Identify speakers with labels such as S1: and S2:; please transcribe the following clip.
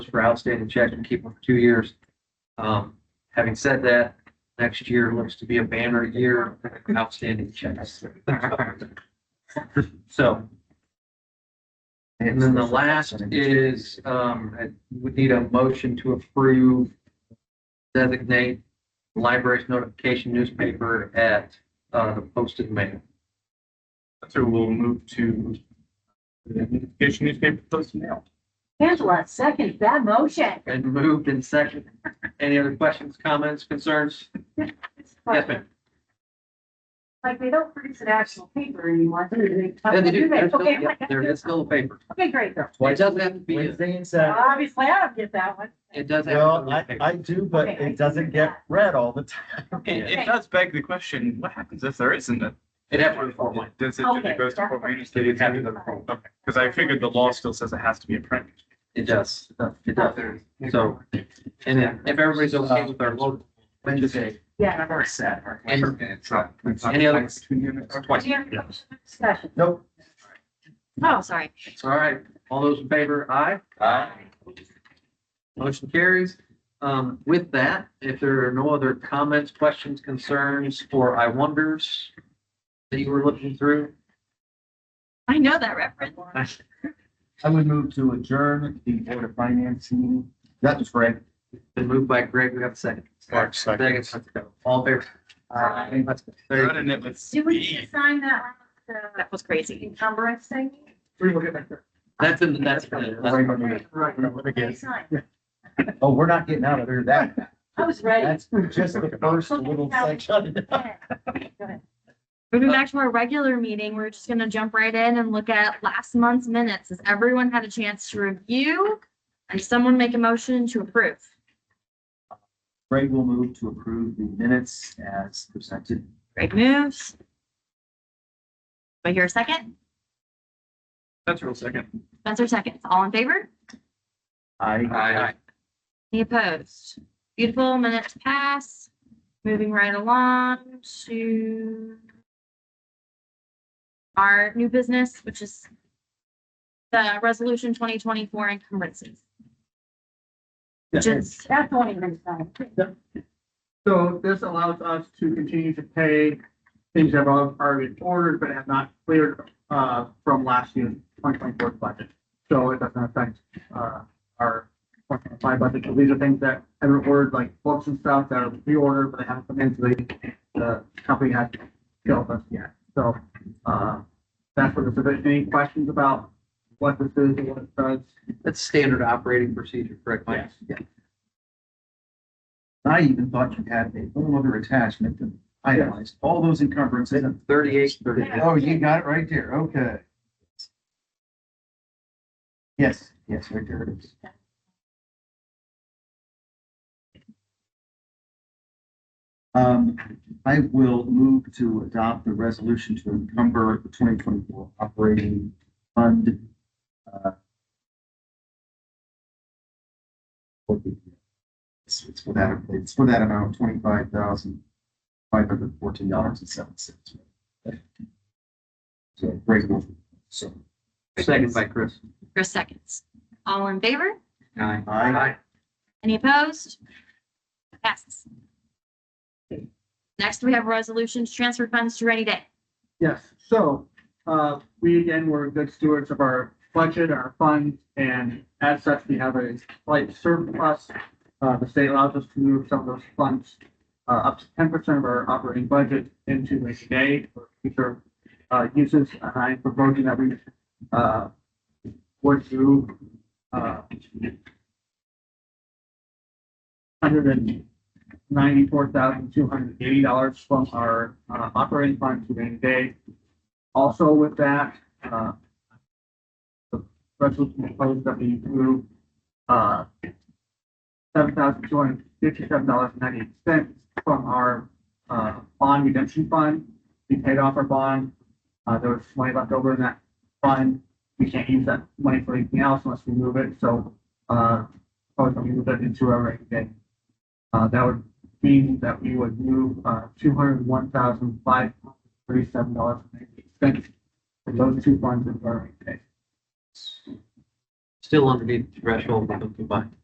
S1: for outstanding checks and keep them for two years. Um, having said that, next year looks to be a banner year of outstanding checks. So, and then the last is, um, I would need a motion to approve designate library's notification newspaper at, uh, the posted mail.
S2: So we'll move to the notification newspaper post now.
S3: Angela, second that motion.
S1: And moved and seconded. Any other questions, comments, concerns? Yes, ma'am.
S3: Like, they don't produce an actual paper anymore. do they?
S1: Yeah, they do. There's still-
S3: Okay,
S1: yeah, There is still a paper.
S3: okay, great. Well,
S1: It doesn't have to be, it
S4: Wednesday and Saturday.
S3: Obviously, I don't get that one.
S1: does have.
S4: Well,
S1: to
S4: I,
S1: be a paper.
S4: I do, but
S3: Okay, I
S4: it doesn't
S3: do
S4: get
S3: that.
S4: read all the time.
S2: It,
S3: Okay.
S2: it does beg the question, what happens if there isn't a?
S1: It has to be formal.
S2: Does it, if
S3: Okay,
S2: it goes to
S3: that's
S2: Fort
S3: what-
S2: Wayne State?
S1: It has to be formal.
S2: Because I figured the law still says it has to be in print.
S1: It does. It does. So, and then if everybody's okay with our vote, Wednesday,
S3: Yeah.
S2: or sad.
S1: And- Any other-
S2: Twice.
S3: Discussion.
S4: Nope.
S3: Oh, sorry.
S1: it's all right. All those in favor, aye? Motion carries. Um, with that, if there are no other comments, questions, concerns, or I wonders that you were looking through,
S5: I know that reference.
S4: I would move to adjourn the Board of Finance meeting. That was great.
S1: been moved by Greg, we have a second.
S2: Mark, second.
S1: Second, all in favor.
S3: Aye.
S1: Let's go. There you go.
S2: Running it with
S3: Do we
S2: speed.
S3: assign that one,
S5: That was crazy.
S3: the encumbrance thing?
S1: That's in, the- that's. in the- that's-
S3: Sign.
S4: Oh, we're not getting out of there that.
S3: I was ready.
S4: That's just the first little section.
S3: Yeah. Go ahead.
S5: Moving back to our regular meeting, we're just gonna jump right in and look at last month's minutes. Has everyone had a chance to review? And someone make a motion to approve?
S4: Greg will move to approve the minutes as presented.
S5: Great moves. Do I hear a second?
S2: That's real second.
S5: Spencer seconds. All in favor?
S4: I,
S1: Aye.
S5: Any opposed? Beautiful, minutes pass. Moving right along to our new business, which is the resolution twenty twenty-four encumbrances. Which is,
S3: That's the one you're gonna sign.
S6: So this allows us to continue to pay things that have already been ordered but have not cleared, uh, from last year's twenty twenty-four budget. So it doesn't affect, uh, our twenty twenty-five budget. So these are things that have been ordered, like books and stuff that are pre-ordered, but they haven't come in, so they, the company hasn't billed us yet. So, uh, that's what this is. Any questions about what this is and what it does?
S1: That's standard operating procedure, correct, Mike?
S4: I even thought you had a whole other attachment that itemized all those encumbrances.
S1: Thirty-eight, thirty-nine.
S4: Oh, you got it right there, okay. Yes, yes, right there it is. Um, I will move to adopt the resolution to encumber the twenty twenty-four operating fund. uh, for the- It's it's for that, it's for that amount, twenty-five thousand, five hundred fourteen dollars and seven cents. So great move. So.
S1: Second by Chris.
S5: Chris seconds. All in favor?
S1: Aye.
S4: Aye.
S5: Any opposed? Passes. Next, we have resolutions, transfer funds to rainy day.
S6: Yes, so, uh, we again were good stewards of our budget, our funds, and as such, we have a slight surplus. Uh, the state allows us to move some of those funds, uh, up to ten percent of our operating budget into rainy day for future, uh, uses. And I'm proposing that we, uh, would do, uh, hundred and ninety-four thousand, two hundred and eighty dollars from our, uh, operating fund to rainy day. Also with that, uh, the resolution proposed that we move, uh, seven thousand, two hundred and fifty-seven dollars and ninety-eight cents from our, uh, bond redemption fund. We paid off our bond, uh, there was money left over in that fund. We can't use that money for anything else unless we move it, so, uh, proposed that we move it into our rainy day. Uh, that would mean that we would move, uh, two hundred one thousand five thirty-seven dollars and ninety-eight cents. For those two funds in our rate case. still underneath the threshold, we don't combine.